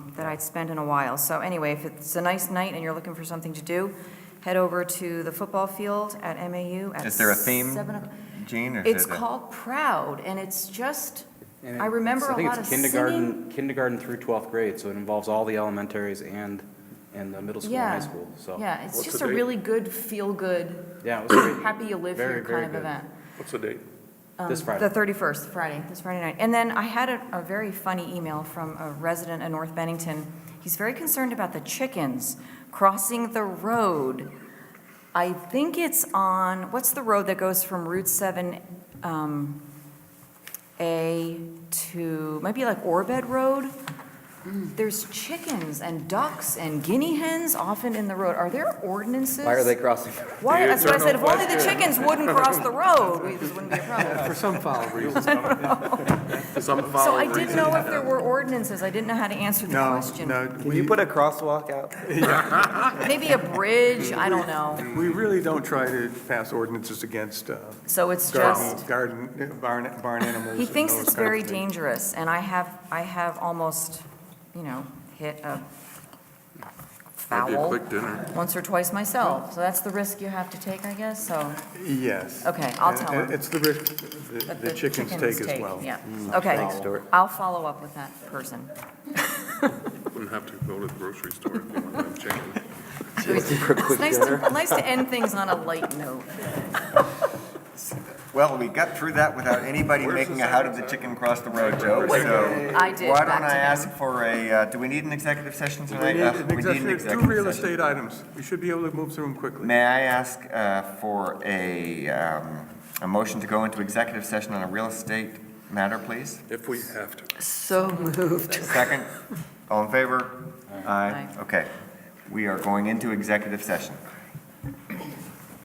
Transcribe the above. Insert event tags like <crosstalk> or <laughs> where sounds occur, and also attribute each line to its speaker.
Speaker 1: that I'd spent in a while. So anyway, if it's a nice night and you're looking for something to do, head over to the football field at MAU at
Speaker 2: Is there a theme,
Speaker 1: seven o'clock.
Speaker 2: Gene? or is
Speaker 1: It's
Speaker 2: it a-
Speaker 1: called Proud, and it's just,
Speaker 3: And it-
Speaker 1: I remember
Speaker 3: so
Speaker 1: a lot of
Speaker 3: I think it's kindergarten,
Speaker 1: singing.
Speaker 3: kindergarten through 12th grade, so it involves all the elementaries and, and the middle school and
Speaker 1: Yeah.
Speaker 3: high school, so.
Speaker 1: Yeah, it's
Speaker 4: What's
Speaker 1: just
Speaker 4: the
Speaker 1: a
Speaker 4: date?
Speaker 1: really good, feel-good,
Speaker 3: Yeah, it was great.
Speaker 1: happy you live
Speaker 3: Very,
Speaker 1: here
Speaker 3: very
Speaker 1: kind of
Speaker 3: good.
Speaker 1: event.
Speaker 4: What's the date?
Speaker 3: This
Speaker 1: Um,
Speaker 3: Friday.
Speaker 1: The 31st, Friday, this Friday night. And then I had a, a very funny email from a resident in North Bennington. He's very concerned about the chickens crossing the road. I think it's on, what's the road that goes from Route 7, um, A to, might be like Orbed Road?
Speaker 5: Mm.
Speaker 1: There's chickens and ducks and guinea hens often in the road. Are there ordinances?
Speaker 5: Why are they crossing?
Speaker 1: Why, that's what I said, if only the chickens wouldn't cross the road, we- this wouldn't be a problem.
Speaker 6: For some foul reason.
Speaker 4: Some
Speaker 1: So
Speaker 4: follow
Speaker 1: I didn't know if there were ordinances, I didn't know how to answer the
Speaker 6: No,
Speaker 1: question.
Speaker 6: no.
Speaker 5: Can you
Speaker 6: we-
Speaker 5: put a crosswalk out?
Speaker 1: Maybe a bridge, I don't know.
Speaker 6: We really don't try to pass ordinances against uh,
Speaker 1: So it's
Speaker 6: garden,
Speaker 1: just,
Speaker 6: garden, uh, barn, barn animals.
Speaker 1: he
Speaker 6: and
Speaker 1: thinks
Speaker 6: those
Speaker 1: it's
Speaker 6: kinds of
Speaker 1: very
Speaker 6: things.
Speaker 1: dangerous, and I have, I have almost, you know, hit a
Speaker 4: Might be a
Speaker 1: foul
Speaker 4: quick dinner.
Speaker 1: once or twice myself, so that's the risk you have to take, I guess, so,
Speaker 6: Yes.
Speaker 1: Okay, I'll
Speaker 6: And-
Speaker 1: tell
Speaker 6: and
Speaker 1: him.
Speaker 6: It's the risk the-
Speaker 1: but
Speaker 6: the chickens take as well.
Speaker 1: Yeah, okay.
Speaker 5: Thanks, Stuart.
Speaker 1: I'll follow up with that person.
Speaker 4: Wouldn't have to go to the grocery store if you wanted to have chicken.
Speaker 5: Looking
Speaker 1: <laughs>
Speaker 5: for a
Speaker 1: It's
Speaker 5: quick
Speaker 1: nice to,
Speaker 5: dinner?
Speaker 1: nice to end things on a light note.
Speaker 2: Well, we got through that without anybody
Speaker 4: Where's
Speaker 2: making
Speaker 4: the
Speaker 2: a how did the
Speaker 4: second?
Speaker 2: chicken cross the road joke, so.
Speaker 1: I did,
Speaker 2: Why
Speaker 1: back
Speaker 2: don't
Speaker 1: to
Speaker 2: I
Speaker 1: them.
Speaker 2: ask for a, uh, do we need an executive session
Speaker 6: We
Speaker 2: tonight?
Speaker 6: need
Speaker 2: Uh,
Speaker 6: an
Speaker 2: we need an
Speaker 6: executive- Two
Speaker 2: executive
Speaker 6: real
Speaker 2: session.
Speaker 6: estate items. We should be able to move through them quickly.
Speaker 2: May I ask uh, for a, um, a motion to go into executive session on a real estate matter, please?
Speaker 4: If we have to.
Speaker 1: So moved.
Speaker 2: Second, all in favor? Aye. Okay, we are going into executive session.